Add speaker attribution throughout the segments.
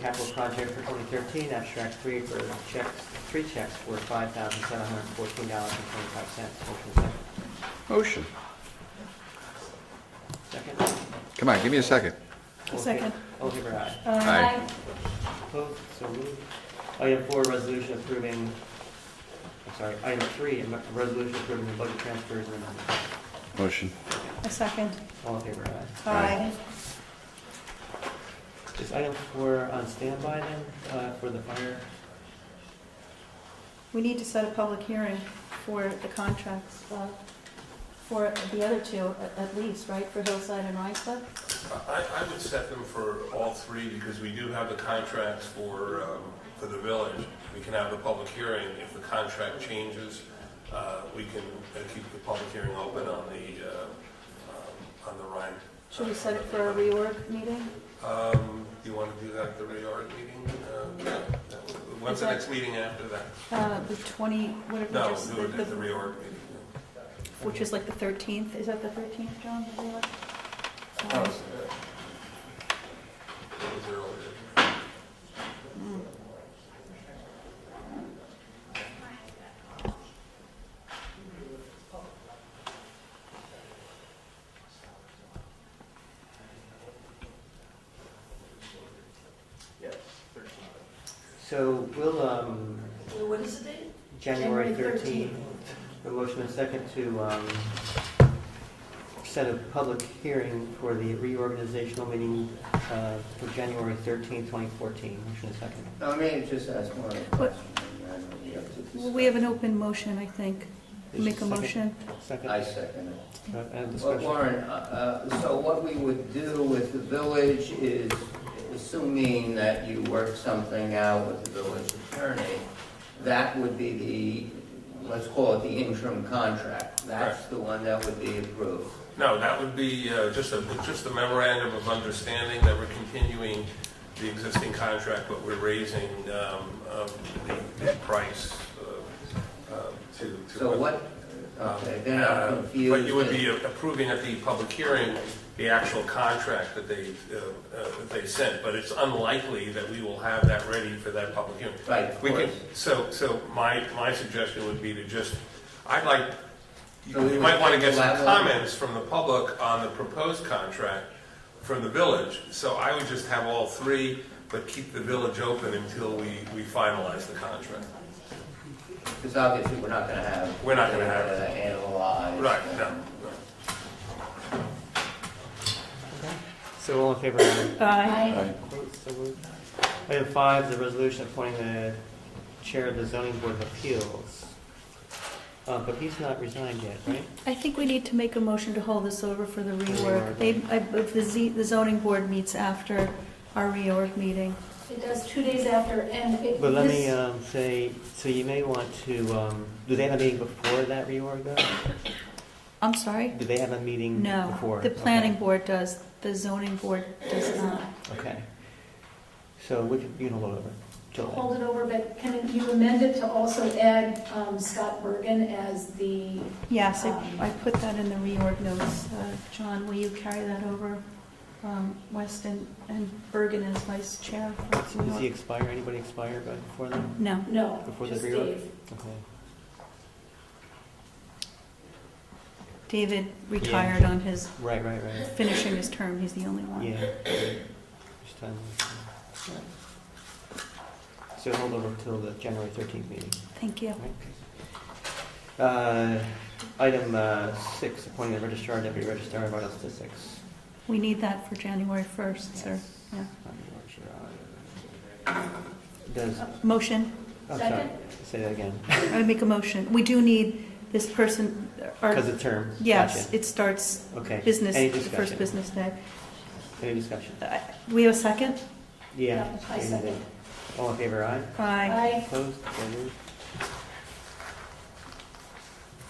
Speaker 1: capital project for 2013, abstract three for checks, three checks for $5,714.25. Motion second.
Speaker 2: Motion.
Speaker 1: Second?
Speaker 2: Come on, give me a second.
Speaker 1: All in
Speaker 3: Second.
Speaker 1: favor- All in favor, aye.
Speaker 2: Aye.
Speaker 1: Opposed? So moved. Item four, resolution approving, I'm sorry, item three, a resolution approving the budget transfers and amendments.
Speaker 2: Motion.
Speaker 3: A second.
Speaker 1: All in favor, aye.
Speaker 3: Aye.
Speaker 1: Is item four on standby then, uh, for the fire?
Speaker 3: We need to set a public hearing for the contracts, uh, for the other two a- at least, right, for Hillside and Rhinebeck?
Speaker 4: I, I would set them for all three because we do have the contracts for, um, for the village. We can have a public hearing. If the contract changes, uh, we can uh, keep the public hearing open on the, uh, um, on the Rhine.
Speaker 3: Should we set it for a reorg meeting?
Speaker 4: Um, do you want to do that at the Rayard meeting? Uh, no, no. When's the next meeting after that?
Speaker 3: Uh, The 20, what did we
Speaker 4: No,
Speaker 3: just,
Speaker 4: do it
Speaker 3: the-
Speaker 4: at the Rayard meeting.
Speaker 3: which is like the 13th, is that the 13th, John? the reorg?
Speaker 4: Oh,
Speaker 3: Um,
Speaker 4: yeah. That was earlier.
Speaker 1: So we'll, um,
Speaker 5: What is the date?
Speaker 1: January
Speaker 5: January
Speaker 1: 13th. The motion is second to um, set a public hearing for the reorganizational meeting uh, for January 13th, 2014. Motion is second.
Speaker 6: No, I may just ask one question.
Speaker 3: What-
Speaker 6: I know we have to
Speaker 3: Well, We have an
Speaker 6: discuss.
Speaker 3: open motion, I think.
Speaker 1: Is
Speaker 3: Make a
Speaker 1: second-
Speaker 3: motion.
Speaker 1: Second.
Speaker 6: I second it.
Speaker 1: Uh, And
Speaker 6: Well,
Speaker 1: discussion.
Speaker 6: Warren, uh, uh, so what we would do with the village is, assuming that you work something out with the village attorney, that would be the, let's call it the interim contract. That's the one that would be approved.
Speaker 4: No, that would be uh, just a, just a memorandum of understanding that we're continuing the existing contract, but we're raising um, um, the the price uh, um, to. to-
Speaker 6: So what, okay, then
Speaker 4: Uh,
Speaker 6: I'm confused.
Speaker 4: But you would be approving at the public hearing the actual contract that they, uh, uh, that they sent, but it's unlikely that we will have that ready for that public hearing.
Speaker 6: Right, of
Speaker 4: We can,
Speaker 6: course.
Speaker 4: so, so my, my suggestion would be to just, I'd like,
Speaker 6: So we
Speaker 4: you might
Speaker 6: would
Speaker 4: want to get some
Speaker 6: elaborate.
Speaker 4: comments from the public on the proposed contract from the village. So I would just have all three, but keep the village open until we, we finalize the contract.
Speaker 6: Because obviously, we're not gonna have.
Speaker 4: We're not gonna have-
Speaker 6: uh, Analyze.
Speaker 4: Right, no, no.
Speaker 1: So all in favor? aye.
Speaker 3: Aye.
Speaker 2: Aye.
Speaker 1: Opposed? So moved. Item five, the resolution appointing the chair of the zoning board of appeals. Uh, But he's not resigned yet, right?
Speaker 3: I think we need to make a motion to hold this over for the
Speaker 1: reorg.
Speaker 3: reorg. They- I- If the Z- the zoning board meets after our reorg meeting.
Speaker 5: It does two days after, and it.
Speaker 1: But let me
Speaker 5: this-
Speaker 1: um, say, so you may want to, um, do they have a meeting before that reorg though?
Speaker 3: I'm sorry?
Speaker 1: Do they have a meeting Mm, before?
Speaker 3: No, the
Speaker 1: Okay.
Speaker 3: planning board does, the zoning board
Speaker 1: uh,
Speaker 3: does
Speaker 5: uh,
Speaker 3: not.
Speaker 1: Okay. So we can, you can hold over till
Speaker 5: Hold it over, but can you amend it to also add um, Scott Bergen as the,
Speaker 3: Yes, I I put that in the reorg notes. Uh, John, will you carry that over? Um, Weston and Bergen as vice chair. for
Speaker 1: then. Does he
Speaker 3: reorg.
Speaker 1: expire, anybody expire by- before then?
Speaker 3: No,
Speaker 5: no,
Speaker 1: Before the
Speaker 5: just
Speaker 1: reorg?
Speaker 5: Dave.
Speaker 1: Okay.
Speaker 3: David retired on his,
Speaker 1: Right, right, right.
Speaker 3: finishing his term, he's the only one.
Speaker 1: Yeah. Just time to- So hold over till the January 13th meeting.
Speaker 3: Thank you.
Speaker 1: right? Uh, Item uh, six, appointing the registrar, and deputy registrar, and vital statistics.
Speaker 3: We need that for January 1st, sir. Yeah.
Speaker 1: Does,
Speaker 3: Motion,
Speaker 1: I'm sorry,
Speaker 5: Second?
Speaker 1: say that again,
Speaker 3: I make a motion. We do need this person, our-
Speaker 1: because of term.
Speaker 3: yes,
Speaker 1: Gotcha.
Speaker 3: it starts
Speaker 1: Okay.
Speaker 3: business,
Speaker 1: Any
Speaker 3: the first
Speaker 1: discussion?
Speaker 3: business day.
Speaker 1: Any discussion?
Speaker 3: Uh, We have a second?
Speaker 1: Yeah.
Speaker 5: Yeah, I
Speaker 1: and, uh,
Speaker 5: second.
Speaker 1: All in favor, aye?
Speaker 3: Aye.
Speaker 5: Aye.
Speaker 1: Opposed? So moved.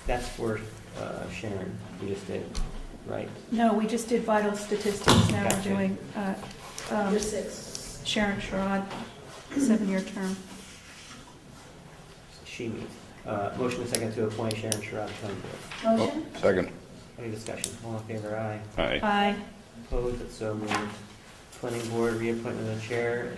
Speaker 1: That's for uh, Sharon, you just did, right?
Speaker 3: No, we just did vital statistics, now we're
Speaker 1: Gotcha.
Speaker 3: doing uh, um,
Speaker 5: Number six.
Speaker 3: Sharon Sherrod, seven-year term.
Speaker 1: She means. Uh, Motion is second to appoint Sharon Sherrod to zoning board.
Speaker 5: Motion?
Speaker 2: Second.
Speaker 1: Any discussion? All in favor, aye?
Speaker 2: Aye.
Speaker 3: Aye.
Speaker 1: Opposed? So moved. Planning board reappointment of the chair